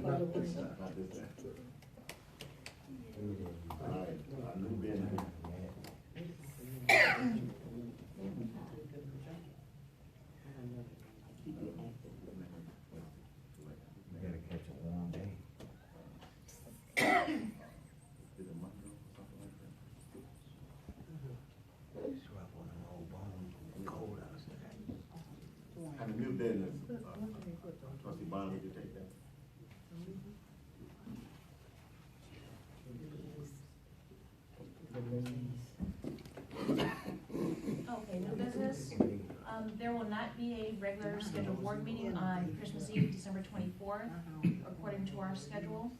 time I did that. All right, I knew Ben here. We gotta catch it one day. Is it Monroe or something like that? Strap on them old bones, cold outside. And the new business, uh, trustee Bonner, would you take that? Okay, new business. Um, there will not be a regular scheduled board meeting on Christmas Eve, December twenty-fourth, according to our schedule.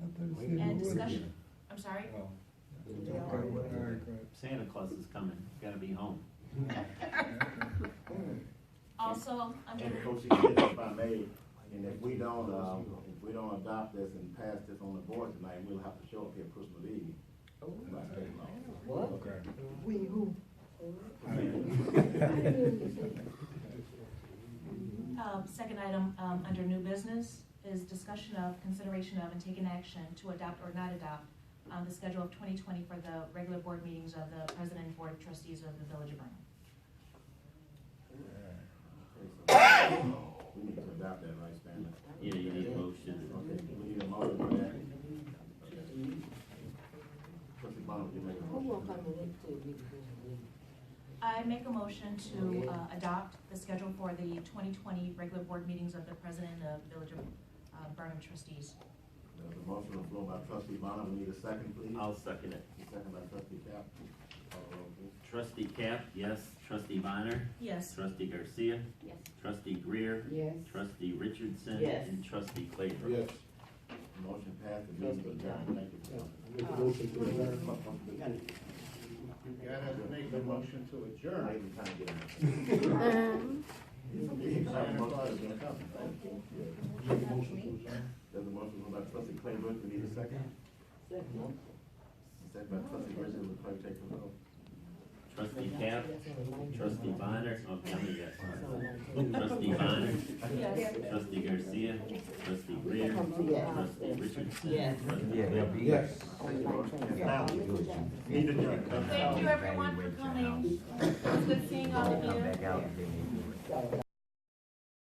And discussion, I'm sorry? Santa Claus is coming, gotta be home. Also, under, And Coach, if I may, and if we don't, um, if we don't adopt this and pass this on the board tonight, we'll have to show up here Christmas Eve. By state law. We who? um, second item, um, under new business is discussion of, consideration of, and taking action to adopt or not adopt um, the schedule of twenty twenty for the regular board meetings of the president and board of trustees of the village of Burnham. Okay, so We need to adopt that, right, Stanley? Yeah, you need a motion. Okay, we need a motion for that. Okay. Trustee Bonner, would you make a motion? I make a motion to uh, adopt the schedule for the 2020 regular board meetings of the president of Village of uh, Burnham trustees. There's a motion on the floor by trustee Bonner, we need a second, please. I'll second it. Second by trustee Uh, Cap. Call the roll, please. Trustee Cap, yes. Trustee Bonner. Yes. Trustee Garcia. Yes. Trustee Greer. Yes. Trustee Richardson. Yes. And trustee Claybrook. Motion passed, the meeting is adjourned, thank you. Uh, You gotta make a motion to Sure, I adjourn. even kinda get it. Santa Claus is gonna come. There's a motion by trustee Claybrook, we need a second. Second by trustee Richardson, the clerk take the roll. Trustee Cap. Trustee Bonner. Oh, tell me yes. Trustee Bonner. Yes. Trustee Garcia. Trustee Greer. Yes. Trustee Richardson. Yes. Trustee Yeah, Claybrook. yes. Need adjourn. Thank you, everyone, for coming. It's good seeing all of you. Come back out and then they do it.